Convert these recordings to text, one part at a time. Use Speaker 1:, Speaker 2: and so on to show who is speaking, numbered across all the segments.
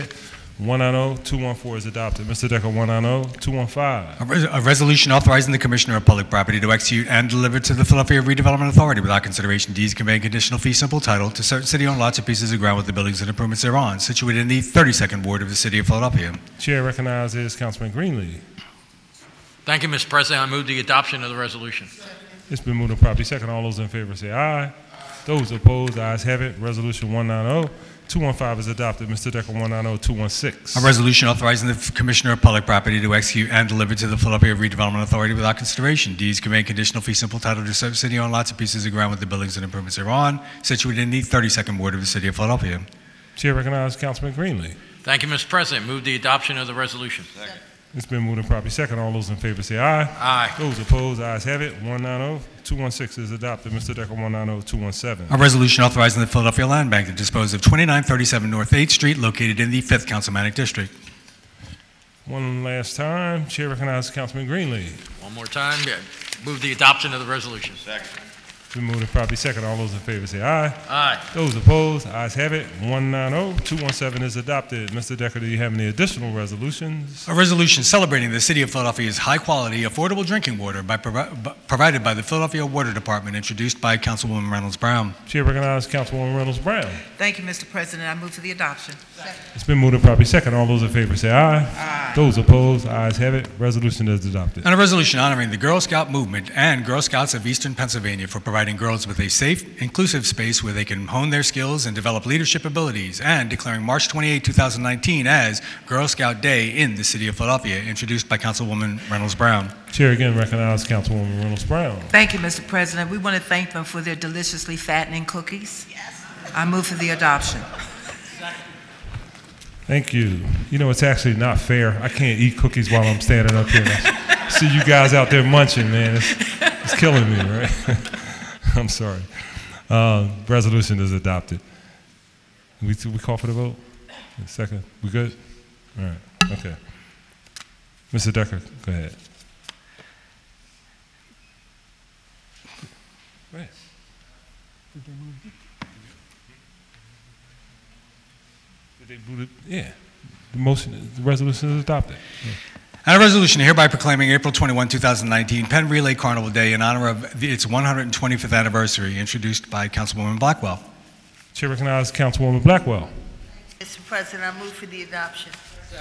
Speaker 1: oh, 190-214 is adopted. Mr. Decker, oh, 190-215.
Speaker 2: A res- A resolution authorizing the Commissioner of Public Property to execute and deliver to the Philadelphia Redevelopment Authority without consideration deeds conveying conditional fee simple title to certain city-owned lots and pieces of ground with the buildings and improvements thereon situated in the 32nd Ward of the City of Philadelphia.
Speaker 1: Chair recognizes Councilman Greenlee.
Speaker 3: Thank you, Mr. President. I move the adoption of the resolution.
Speaker 1: It's been moved and properly second. All those in favor say aye. Those opposed, ayes have it. Resolution oh, 190-215 is adopted. Mr. Decker, oh,
Speaker 2: A
Speaker 1: 190-216.
Speaker 2: resolution authorizing the F- Commissioner of Public Property to execute and deliver to the Philadelphia Redevelopment Authority without consideration deeds conveying conditional fee simple title to certain city-owned lots and pieces of ground with the buildings and improvements thereon situated in the 32nd Ward of the City of Philadelphia.
Speaker 1: Chair recognizes Councilman Greenlee.
Speaker 3: Thank you, Mr. President. Move the adoption of the resolution.
Speaker 1: It's been moved and properly second. All those in favor say aye.
Speaker 3: Aye.
Speaker 1: Those opposed, ayes have it. oh, 190-216 is adopted. Mr. Decker, oh, 190-217.
Speaker 2: A resolution authorizing the Philadelphia Land Bank to dispose of 2937 North 8th Street, located in the 5th Councilmanic District.
Speaker 1: One last time, Chair recognizes Councilman Greenlee.
Speaker 3: One more time. Yeah. Move the adoption of the resolution.
Speaker 1: It's been moved and properly second. All those in favor say aye.
Speaker 3: Aye.
Speaker 1: Those opposed, ayes have it. oh, 190-217 is adopted. Mr. Decker, do you have any additional resolutions?
Speaker 2: A resolution celebrating the City of Philadelphia's high-quality, affordable drinking water by provi- b- provided by the Philadelphia Water Department, introduced by Councilwoman Reynolds Brown.
Speaker 1: Chair recognizes Councilwoman Reynolds Brown.
Speaker 4: Thank you, Mr. President. I move for the adoption.
Speaker 1: It's been moved and properly second. All those in favor say aye. Those opposed, ayes have it. Resolution is adopted.
Speaker 2: And a resolution honoring the Girl Scout movement and Girl Scouts of Eastern Pennsylvania for providing girls with a safe, inclusive space where they can hone their skills and develop leadership abilities, and declaring March 28, 2019 as Girl Scout Day in the City of Philadelphia, introduced by Councilwoman Reynolds Brown.
Speaker 1: Chair again recognizes Councilwoman Reynolds Brown.
Speaker 4: Thank you, Mr. President. We want to thank them for their deliciously fattening cookies. Yes. I move for the adoption.
Speaker 1: Thank you. You know, it's actually not fair. I can't eat cookies while I'm standing up here. I see you guys out there munching, man. It's, it's killing me, right? I'm sorry. Uh, resolution is adopted. We, we call for the vote? Second? We good? All right. Okay. Mr. Decker, go ahead. Go ahead. Did they boot it? Yeah. The motion, the resolution is adopted.
Speaker 2: And a resolution hereby proclaiming April 21, 2019 Penn Relay Carnival Day in honor of the- its 125th anniversary, introduced by Councilwoman Blackwell.
Speaker 1: Chair recognizes Councilwoman Blackwell.
Speaker 5: Mr. President, I move for the adoption.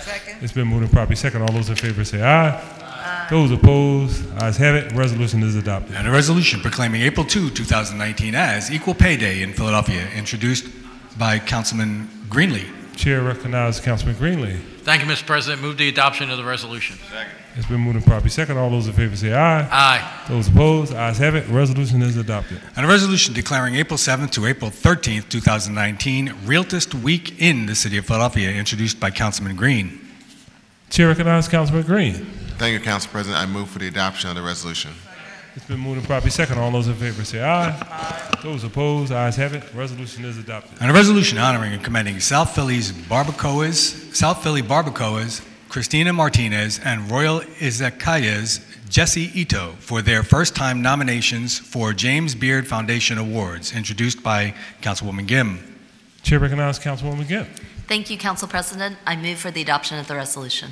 Speaker 5: Second.
Speaker 1: It's been moved and properly second. All those in favor say aye. Those opposed, ayes have it. Resolution is adopted.
Speaker 2: And a resolution proclaiming April 2, 2019 as Equal Pay Day in Philadelphia, introduced by Councilman Greenlee.
Speaker 1: Chair recognizes Councilman Greenlee.
Speaker 3: Thank you, Mr. President. Move the adoption of the resolution.
Speaker 1: It's been moved and properly second. All those in favor say aye.
Speaker 3: Aye.
Speaker 1: Those opposed, ayes have it. Resolution is adopted.
Speaker 2: And a resolution declaring April 7th to April 13th, 2019 Realtist Week in the City of Philadelphia, introduced by Councilman Green.
Speaker 1: Chair recognizes Councilman Green.
Speaker 6: Thank you, Council President. I move for the adoption of the resolution.
Speaker 1: It's been moved and properly second. All those in favor say aye. Those opposed, ayes have it. Resolution is adopted.
Speaker 2: And a resolution honoring and commending South Philly's barbacoas, South Philly barbacoas, Christina Martinez and Royal Izakaya's Jesse Ito for their first-time nominations for James Beard Foundation Awards, introduced by Councilwoman Gim.
Speaker 1: Chair recognizes Councilwoman Gibb.
Speaker 7: Thank you, Council President. I move for the adoption of the resolution.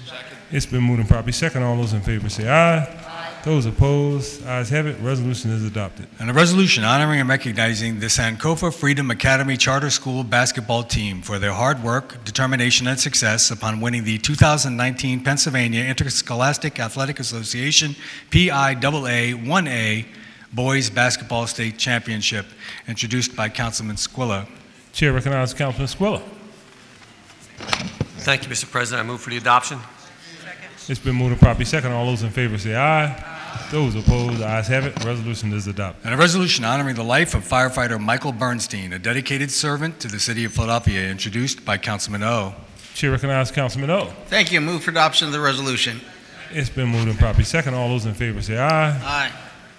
Speaker 1: It's been moved and properly second. All those in favor say aye. Those opposed, ayes have it. Resolution is adopted.
Speaker 2: And a resolution honoring and recognizing the Sankofa Freedom Academy Charter School basketball team for their hard work, determination, and success upon winning the 2019 Pennsylvania Interscholastic Athletic Association PIAA 1A Boys Basketball State Championship, introduced by Councilman Squilla.
Speaker 1: Chair recognizes Councilman Squilla.
Speaker 8: Thank you, Mr. President. I move for the adoption.
Speaker 1: It's been moved and properly second. All those in favor say aye. Those opposed, ayes have it. Resolution is adopted.
Speaker 2: And a resolution honoring the life of firefighter Michael Bernstein, a dedicated servant to the city of Philadelphia, introduced by Councilman O.
Speaker 1: Chair recognizes Councilman O.
Speaker 9: Thank you. Move for adoption of the resolution.
Speaker 1: It's been moved and properly second. All those in favor say aye.
Speaker 9: Aye.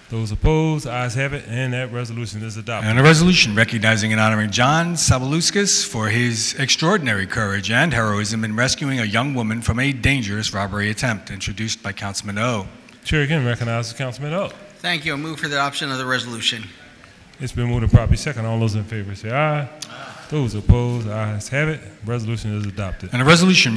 Speaker 1: Those opposed, ayes have it, and that resolution is adopted.
Speaker 2: And a resolution recognizing and honoring John Sabaluskas for his extraordinary courage and heroism in rescuing a young woman from a dangerous robbery attempt, introduced by Councilman O.
Speaker 1: Chair again recognizes Councilman O.
Speaker 9: Thank you. Move for the adoption of the resolution.
Speaker 1: It's been moved and properly second. All those in favor say aye. Those opposed, ayes have it. Resolution is adopted.
Speaker 2: And a resolution